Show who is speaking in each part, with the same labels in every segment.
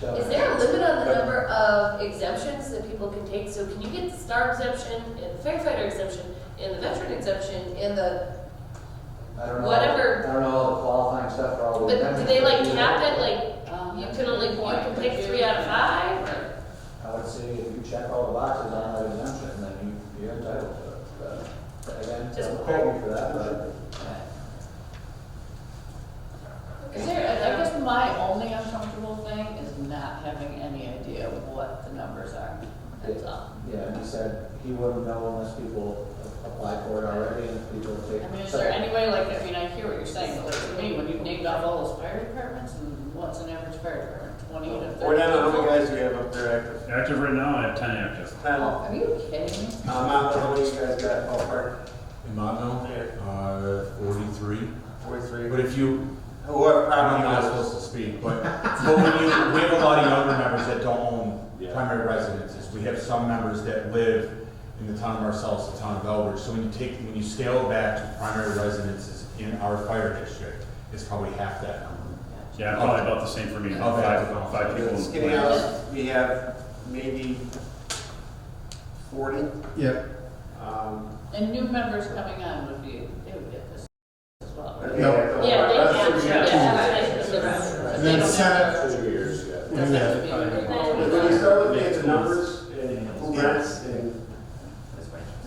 Speaker 1: So-
Speaker 2: Is there a limit on the
Speaker 1: But-
Speaker 2: number of exemptions that people can take? So can you get the star exemption and the firefighter exemption and the veteran exemption and the,
Speaker 1: I don't know.
Speaker 2: whatever-
Speaker 1: I don't know all the qualifying stuff for all the.
Speaker 2: but do
Speaker 1: amendments,
Speaker 2: they like
Speaker 1: you-
Speaker 2: cap it, like
Speaker 3: Um,
Speaker 2: you
Speaker 3: that's
Speaker 2: can
Speaker 3: a
Speaker 2: only,
Speaker 3: good
Speaker 2: you
Speaker 3: point.
Speaker 2: can pick three out of five or?
Speaker 1: I would say if you check all the boxes on that exemption, then you, you're entitled to it. But Again,
Speaker 2: Just-
Speaker 1: don't quote me for that, but.
Speaker 3: Is there, I guess my only uncomfortable thing is not having any idea what the numbers are, that's all.
Speaker 1: Yeah, and he said he wouldn't know unless people apply for it already and people take.
Speaker 3: I mean, is there any way, like, I mean, I hear what you're saying, but like, to me, when you've named off all those fire departments, and what's an average fire department, twenty to thirty?
Speaker 4: Or now, how many guys do we have up there active?
Speaker 5: Active right now, I have ten active.
Speaker 4: Ten. Um,
Speaker 3: Are you kidding me?
Speaker 4: I don't know how many you guys got ballpark?
Speaker 6: In Montville?
Speaker 4: Yeah.
Speaker 6: Uh, forty-three.
Speaker 4: Forty-three.
Speaker 6: But if you,
Speaker 4: Whoever,
Speaker 6: I'm not
Speaker 4: probably
Speaker 6: supposed to speak, but, but when you, we have a lot of younger members that don't own
Speaker 4: Yeah.
Speaker 6: primary residences. We have some members that live in the town of ourselves, the town of Elbridge. So when you take, when you scale back to primary residences in our fire district, it's probably half that number.
Speaker 5: Yeah, probably about the same for me, about five, five people. in
Speaker 4: Skinny
Speaker 5: my-
Speaker 4: house, we have maybe forty.
Speaker 7: Yeah,
Speaker 4: Um,
Speaker 3: And new members coming on would be, they would get this as well.
Speaker 4: but
Speaker 3: right?
Speaker 4: they have-
Speaker 2: Yeah, they
Speaker 4: That's
Speaker 2: capture,
Speaker 4: what we
Speaker 2: yeah,
Speaker 4: have.
Speaker 2: that's what I said,
Speaker 3: But
Speaker 7: and
Speaker 3: they
Speaker 7: then
Speaker 3: don't have-
Speaker 7: Senate,
Speaker 4: Two years, yeah.
Speaker 7: and then-
Speaker 4: But When you start looking at the numbers and who rents and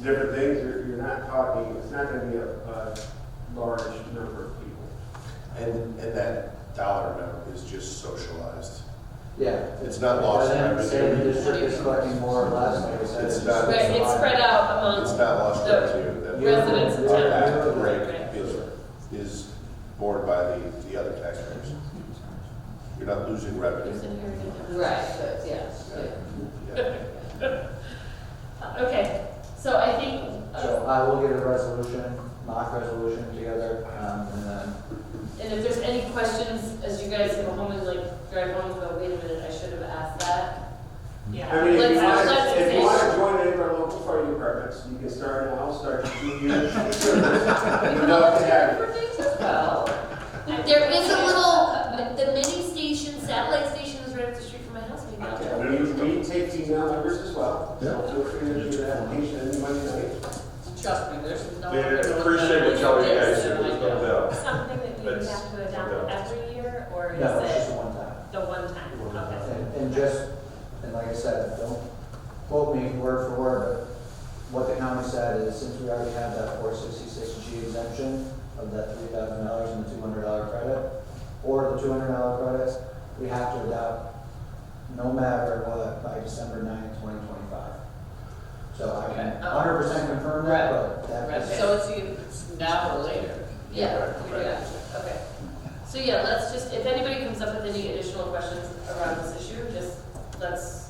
Speaker 4: different things, you're, you're not talking, it's not gonna be a, a large number of people.
Speaker 8: And, and that dollar amount is just socialized.
Speaker 1: Yeah.
Speaker 8: It's not lost
Speaker 1: Doesn't
Speaker 8: forever.
Speaker 1: say the district is collecting more or less, like I said.
Speaker 8: It's not-
Speaker 2: Right, it's spread out
Speaker 8: It's
Speaker 2: amongst,
Speaker 8: not lost revenue. That-
Speaker 2: Um, residents of town.
Speaker 8: That rate is, is borne by the, the other taxpayers. You're not losing revenue.
Speaker 2: who's inherited them.
Speaker 3: Right, but yes,
Speaker 8: Yeah.
Speaker 2: Okay, so I think, uh,
Speaker 1: So I will get a resolution, mock resolution together, um, and then
Speaker 2: and if there's any questions, as you guys go home and like drive home, go, wait a minute, I should have asked that.
Speaker 4: I mean, if you
Speaker 2: Let's-
Speaker 4: want,
Speaker 2: let's
Speaker 4: if you
Speaker 2: just-
Speaker 4: want to join any of our local fire departments, you can start now, start your two years.
Speaker 3: You
Speaker 4: You
Speaker 3: can
Speaker 4: know,
Speaker 3: all
Speaker 4: if you
Speaker 3: share
Speaker 4: have-
Speaker 3: for things as well.
Speaker 2: There is a little, the mini station, satellite station is right up the street from my house, maybe I'll
Speaker 4: Yeah, We, we take female members as well, so feel free to do an application any Monday night.
Speaker 3: Trust me, there's no.
Speaker 9: Yeah,
Speaker 3: other little
Speaker 9: appreciate what y'all
Speaker 3: member
Speaker 9: guys
Speaker 3: that
Speaker 9: do,
Speaker 3: I
Speaker 9: there's
Speaker 3: know.
Speaker 9: no doubt.
Speaker 10: something that you
Speaker 9: That's-
Speaker 10: have to adopt
Speaker 9: yeah.
Speaker 10: every year, or is
Speaker 1: No, it's just
Speaker 10: it
Speaker 1: one time.
Speaker 10: the one time? Okay.
Speaker 1: And, and just, and like I said, don't quote me word for word, but what the county said is since we already have that four sixty-six G exemption of that three thousand dollars and the two hundred dollar credit, or the two hundred dollar credits, we have to adopt no matter what by December ninth, twenty twenty-five. So I can
Speaker 3: Okay.
Speaker 1: hundred percent confirm that, but that
Speaker 3: Right,
Speaker 1: is.
Speaker 3: so it's either it's now or later.
Speaker 2: Yeah, yeah, okay. So yeah, let's just, if anybody comes up with any additional questions around this issue, just let's,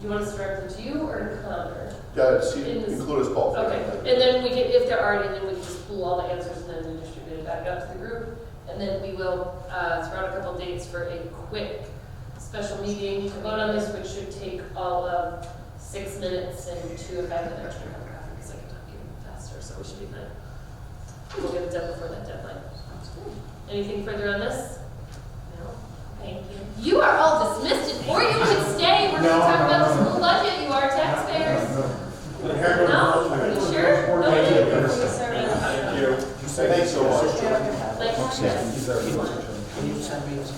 Speaker 2: do you want us to direct them to you or to Connor?
Speaker 8: Yeah, see, include us both.
Speaker 2: Okay, and then we can, if there are any, then we can just pull all the answers and then we distribute it back out to the group. And then we will, uh, throw out a couple dates for a quick special meeting to vote on this, which should take all of six minutes and two if I have an extra paragraph, because I can talk even faster, so we should be fine. We'll get it done before that deadline. Anything further on this? No? Thank you. You are all dismissed, or you can stay, we're gonna
Speaker 6: No,
Speaker 2: talk
Speaker 6: no,
Speaker 2: about
Speaker 6: no,
Speaker 2: the
Speaker 6: no.
Speaker 2: school budget, you are taxpayers. No,
Speaker 6: No,
Speaker 2: you sure? Okay.
Speaker 4: Thank you.
Speaker 8: Thank you so much.
Speaker 2: Like,
Speaker 1: Can you send me this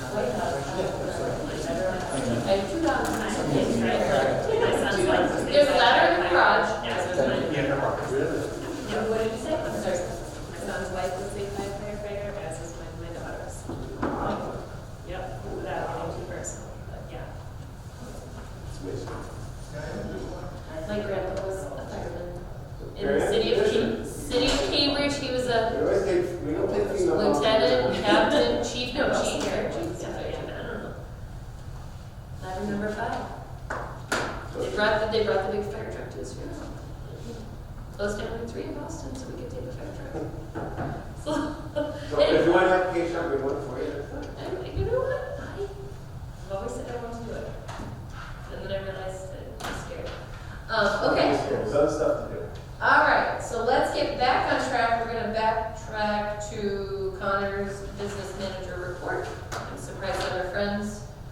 Speaker 2: I do not mind.
Speaker 10: My son's like.
Speaker 2: There's a ladder in the garage.
Speaker 10: And what did you say? I'm sorry. My son's wife was a firefighter, as is my, my daughter's. Yep, that, I'm too personal, but yeah.
Speaker 2: My grandpa was a fireman in the
Speaker 4: Very
Speaker 2: city of,
Speaker 4: efficient.
Speaker 2: Ca- city of Cambridge. He was
Speaker 4: We
Speaker 2: a
Speaker 4: always take, we don't take female. members.
Speaker 2: lieutenant, captain, chief, no, chief, or chief, yeah, I don't know. Ladder number five. They brought, the- they brought the big fire truck to his funeral. Closed down in three in Boston, so we could take the fire truck. So,
Speaker 4: So if you want an application, we want
Speaker 2: Um,
Speaker 4: to